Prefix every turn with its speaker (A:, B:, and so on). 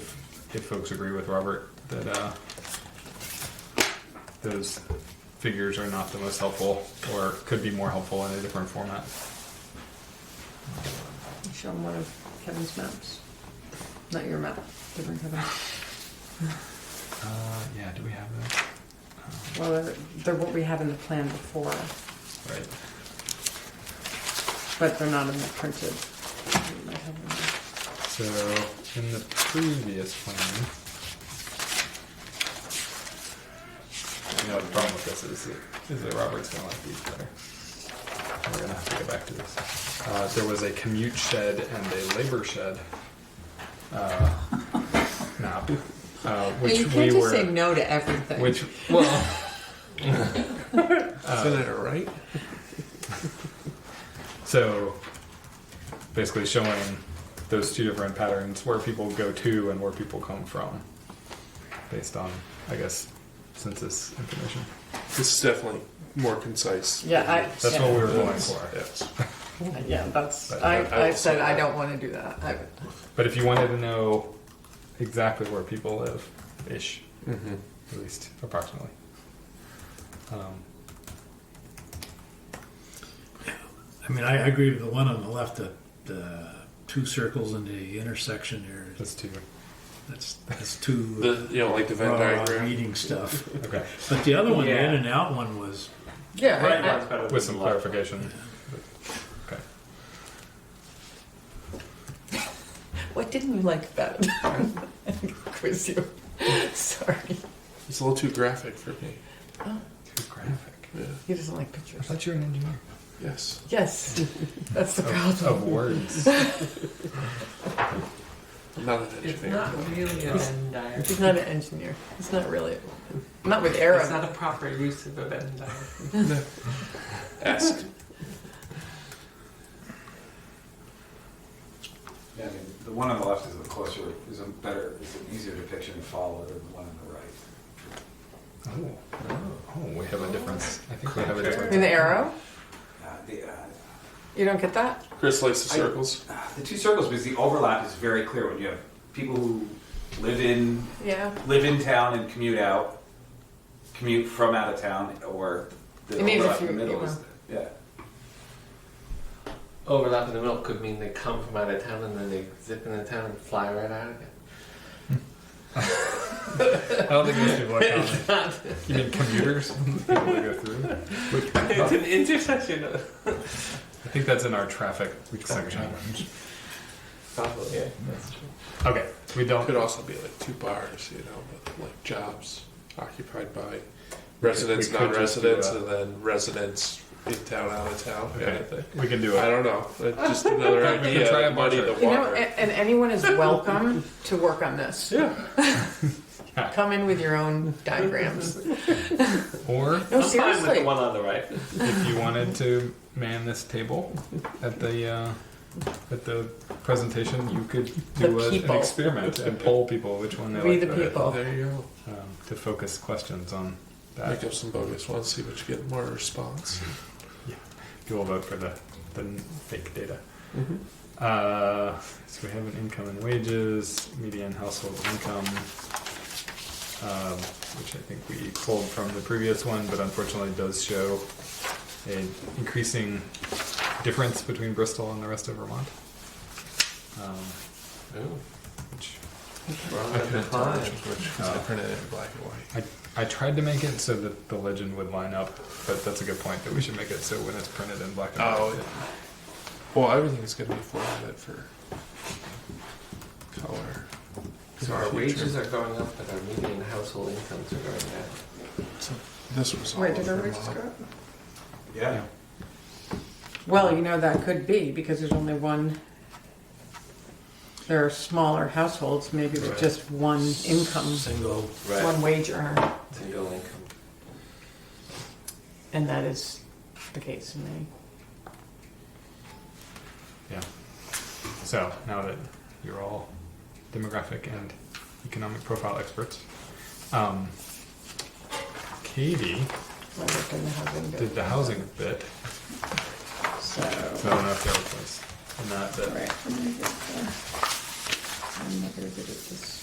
A: if, if folks agree with Robert that, uh, those figures are not the most helpful or could be more helpful in a different format.
B: Show them one of Kevin's maps. Not your map, different Kevin.
A: Uh, yeah, do we have that?
B: Well, they're, they're what we had in the plan before,
A: Right.
B: but they're not in the printed. You might have them.
A: So in the previous plan. You know, the problem with this is that, is that Robert's gonna like these better. We're gonna have to go back to this. Uh, there was a commute shed and a labor shed. Uh, map, uh,
B: But you
A: which we
B: can't just say
A: were,
B: no to everything.
A: which, well.
C: Isn't that right?
A: So basically showing those two different patterns where people go to and where people come from based on, I guess, census information.
C: This is definitely more concise.
B: Yeah, I.
A: That's
B: yeah.
A: what we were going for.
C: Yes.
B: Yeah, that's,
A: But
B: I,
C: I- I
B: I
C: will
B: said
C: say
B: I
C: that.
B: don't wanna do that. I,
A: But if you wanted to know exactly where people live, ish,
C: Mm-hmm.
A: at least approximately. Um,
D: I mean, I I agree with the one on the left, the, the two circles in the intersection there.
A: that's two.
D: That's, that's two
C: The you know like the Venn
D: raw
C: diagram.
D: meeting stuff.
A: Okay.
D: But the other one, the
E: Yeah.
D: in and out one was,
B: yeah,
E: Right
B: I-
E: one's better
A: With
E: than
A: some
E: the left.
A: clarification. Okay.
B: What didn't you like about it? Quiz you. Sorry. Oh,
C: It's a little too graphic for me.
A: Too graphic.
C: Yeah.
B: He doesn't like
A: I
B: pictures.
A: thought you were an engineer.
C: Yes.
B: Yes, that's the
A: Of,
B: problem.
A: of words.
C: I'm not an
E: It's
C: engineer.
E: not really a Venn diagram.
B: He's not an engineer. He's not really. Not with
E: It's
B: Arab.
E: not a proper use of a Venn diagram.
C: Ask.
F: Yeah, I mean, the one on the left is a closer, is a better, is an easier depiction to follow than the one on the right.
A: Oh. oh, we have a difference. I think we have a difference.
B: In the arrow?
F: Uh, The, uh,
B: You don't get that?
C: Chris likes the
F: I-
C: circles.
F: the two circles, because the overlap is very clear when you have people who live in,
B: Yeah.
F: live in town and commute out, commute from out of town, or the
B: It means if
F: overlap in the
B: you-
F: middle
B: you
F: is,
B: know.
F: yeah.
E: Overlap in the middle could mean they come from out of town and then they zip into town and fly right out again.
A: I don't think most people are counting.
E: It's not.
A: You mean commuters? People that go through?
E: It's an intersection of.
A: I think that's in our traffic section.
E: Probably. Yeah, that's true.
A: Okay, we
C: It could
A: don't.
C: also be like two bars, you know, with like jobs occupied by
A: we
C: residents,
A: could just do
C: non-residents,
A: that.
C: and then residents in town, out of town, kind of thing.
A: We can do
C: I
A: it.
C: don't know. It's just another
A: We could
C: idea.
A: try
C: to
A: a
C: muddy
A: bunch
C: the
A: of-
C: water.
B: You know, and, and anyone is welcome to work on this.
C: yeah.
B: Come in with your own diagrams.
A: Or
B: No,
E: I'm fine with the
B: seriously.
E: one on the right.
A: if you wanted to man this table at the uh, at the presentation, you could do
B: The
A: a, an
B: people.
A: experiment and poll people which one they
B: We
A: like
B: the
A: better,
B: people.
C: Oh, There you go.
A: Um, to focus questions on
C: Make
A: that.
C: up some bogus ones, see what you get more response.
A: People vote for the the fake data. Uh, so we have an income and wages, median household income, um, which I think we pulled from the previous one, but unfortunately does show an increasing difference between Bristol and the rest of Vermont. Um,
C: Mm-hmm.
A: which
C: I couldn't tell which which- uh, I printed it in black and white.
A: I, I tried to make it so that the legend would line up, but that's a good point that we should make it so when it's printed in black and white.
C: Oh,
A: it-
C: Well, everything's going to be formatted for color.
E: So our wages are going up, but our median household incomes are going down.
C: So this was all
B: Wait, did
C: over
B: everybody just
C: Vermont.
B: go?
F: Yeah.
B: Well, you know, that could be because there's only one. There are smaller households, maybe with
C: Right.
B: just one income,
D: single,
B: one wage earner,
E: Single income.
B: and that is the case in many.
A: Yeah. So now that you're all demographic and economic profile experts, um, Katie
B: I worked in the housing
A: did the housing bit.
B: So.
A: So I don't know if that was in that bit.
B: Right, I'm gonna get the, I'm not gonna get it this